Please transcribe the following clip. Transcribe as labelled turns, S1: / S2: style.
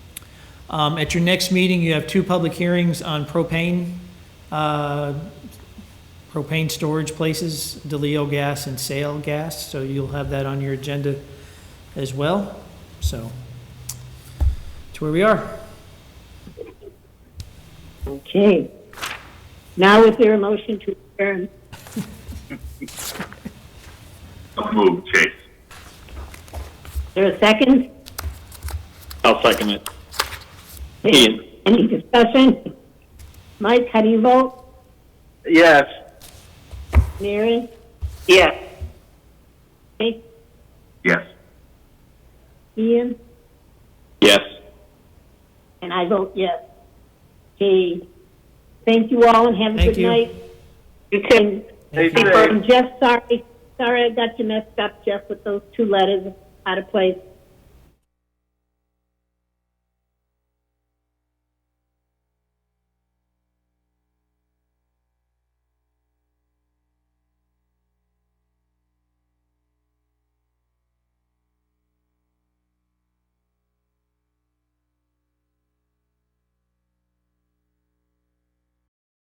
S1: Um, At your next meeting, you have two public hearings on propane, uh, propane storage places, DeLeo Gas and Sale Gas, so you'll have that on your agenda as well. So, that's where we are.
S2: Okay. Now is there a motion to adjourn?
S3: Don't move, Chase.
S2: Is there a second?
S4: I'll second it. Ian.
S2: Any discussion? Mike, how do you vote?
S4: Yes.
S2: Mary?
S4: Yes.
S2: Jake?
S3: Yes.
S2: Ian?
S4: Yes.
S2: And I vote yes. Okay. Thank you all and have a
S1: Thank
S2: good
S1: you.
S2: night. um, You can.
S1: Thank
S2: I'm just sorry, sorry I got you messed up, Jeff, with those two letters out of place.